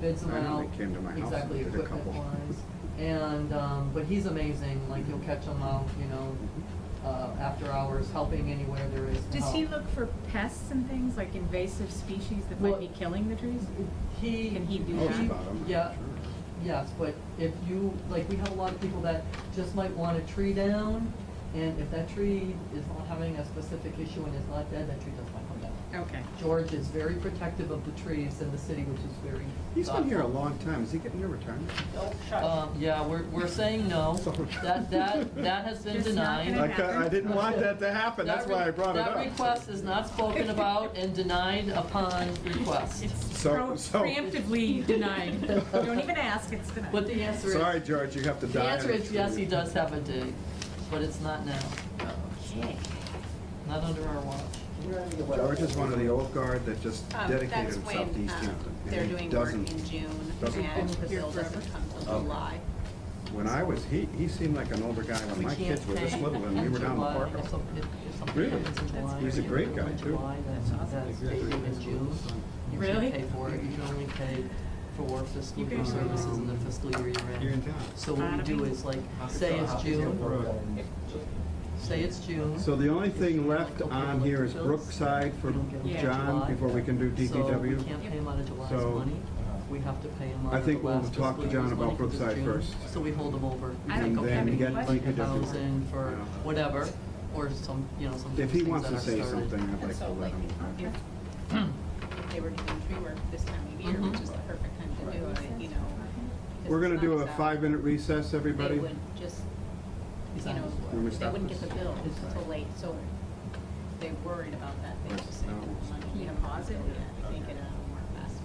bids them I know out. they came to my house Exactly, and did a equipment couple. wise. And, um, but he's amazing, like he'll catch them out, you know, uh, after hours, helping anywhere there is to Does he help. look for pests and things, like invasive species that Well- might be killing the trees? He. Can he do Knows that? about 'em, Yeah, Oh, sure. yes, but if you, like, we have a lot of people that just might want a tree down, and if that tree is not having a specific issue and is not dead, that tree does not come down. Okay. George is very protective of the trees in the city, which is very. He's been here a thoughtful. long time. Is he getting near retirement? Um, yeah, we're, we're saying no. Sorry. That, that, that has been It's not denied. gonna I happen. ca- I didn't want that to happen. That's That re- why I brought it up. That request is not spoken about and denied upon request. It's So- pro- so- preemptively denied. Don't even ask, it's denied. But the answer is. Sorry, George, you have to The die. answer on a is yes, tree. he does have a dig, but it's not now, Okay. not under our watch. George is one of the old guard that just Um, dedicated That's himself to when East um, Hampton. and they're he doing work doesn't- in June doesn't and offer. the bill doesn't come till Okay. July. When I was, he, he seemed like an older guy when We my can't kids were this pay little and we were down in July, Parker. if some- if- if something Really? happens in July He's a or great April guy, or too. July, That's that's paid in June. You can't Really? pay for it, you can only pay for fiscal You year guys are- services in the fiscal year you're in. You're in town. So what we do is like, say it's June, say it's June. So the only thing left on here is Brookside for Yeah. John before we can do So we DPW. can't pay him out of July's So- uh, money, we have to pay him I out of the think we'll last talk to fiscal John year's about money 'cause it's Brookside June. first. So we hold him over. I don't And think then we get have any Like a could DPW. thousand for Yeah. whatever, or some, you know, some If things he that wants to are say started. something, I'd And like to so let like, him. if if they were doing tree work this time of year, which Mhm. is the perfect time to do it, you know. 'cause We're gonna the sun do is a out. five-minute recess, everybody. They would just, He's you on know, his way. Let me they stop wouldn't this. get the bill It's till late, so they worried about that. They Right. just saved No. money. You can pause it, yeah, they get it out more fast.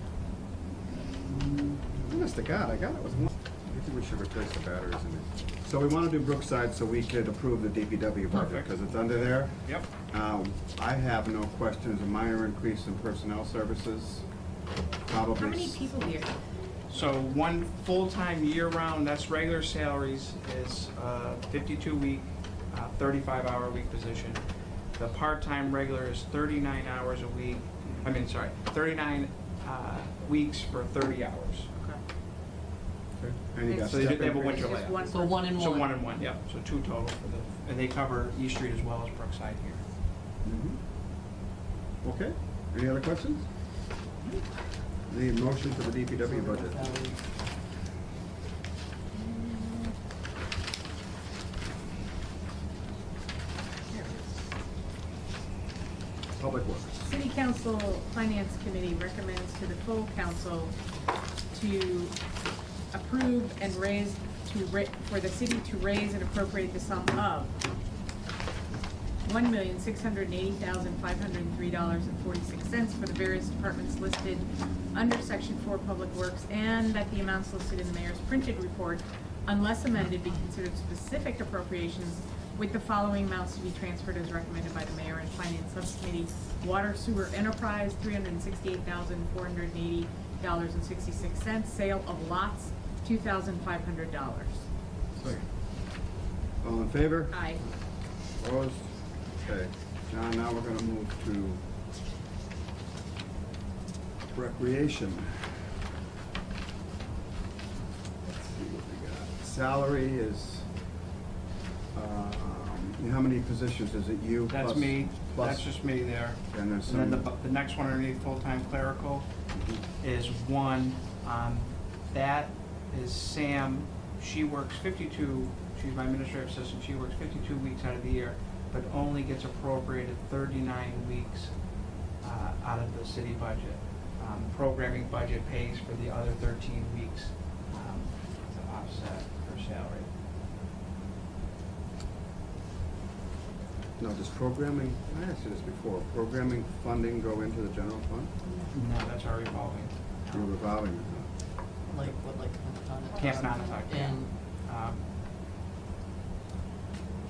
Honest to Oh, God, I got it with one. I think we should replace the batteries in it. So we want to do Brookside so we could approve the DPW budget Perfect. because it's under there. Yep. Um, I have no questions, a minor increase in personnel services, probably. How many s- people here? So one full-time year-round, that's regular salaries, is uh, 52-week, 35-hour week position. The part-time regular is 39 hours a week, I mean, sorry, 39 uh, weeks for 30 hours. And you got So they step did- they have a increase. winter Just layout. one So one in So one. one and one, yeah, so two total for the, and they cover East Street as well as Brookside here. Mhm. Mm-hmm. Okay, any other questions? The motion for the DPW budget. Public Works. City Council Finance Committee recommends to the full council to approve and raise, to ra, for the city to raise and appropriate the sum of one million, six hundred and eighty thousand, five hundred and three dollars and forty-six cents for the various departments listed under section four, Public Works, and that the amounts listed in the mayor's printed report, unless amended, be considered specific appropriations with the following amounts to be transferred as recommended by the mayor and finance subcommittee. Water sewer enterprise, three hundred and sixty-eight thousand, four hundred and eighty dollars and sixty-six cents. Sale of lots, two thousand, five hundred dollars. All in favor? Aye. Opposed? Okay, John, now we're gonna move to recreation. Let's see what we got. Salary is, um, how many positions is it? You plus? That's me, plus- that's just me there. And there's And then the, some- Mm-hmm. bu- the next one underneath full-time clerical is one, um, that is Sam, she works fifty-two, she's my administrative assistant, she works fifty-two weeks out of the year, but only gets appropriated thirty-nine weeks, uh, out of the city budget. Um, programming budget pays for the other thirteen weeks, um, to offset her salary. No, does programming, I asked you this before, programming funding go into the general fund? Mm-hmm. No, that's our revolving. Or revolving? account? Like, what, like? on- Camp Nonatuck, yeah. And um,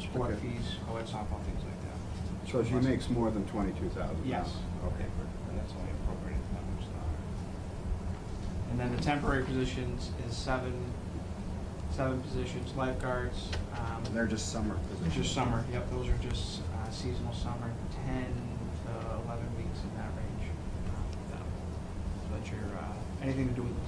sport Okay. fees, co-ed softball, things like that. So she makes more than twenty-two thousand? Yes. Okay, And that's only appropriated numbers that are. And then the temporary positions is seven, seven positions, lifeguards, um, And they're just summer which positions? is summer, yep, those are just uh, seasonal summer, ten to eleven weeks in that range. um, So that's your, uh, anything to do with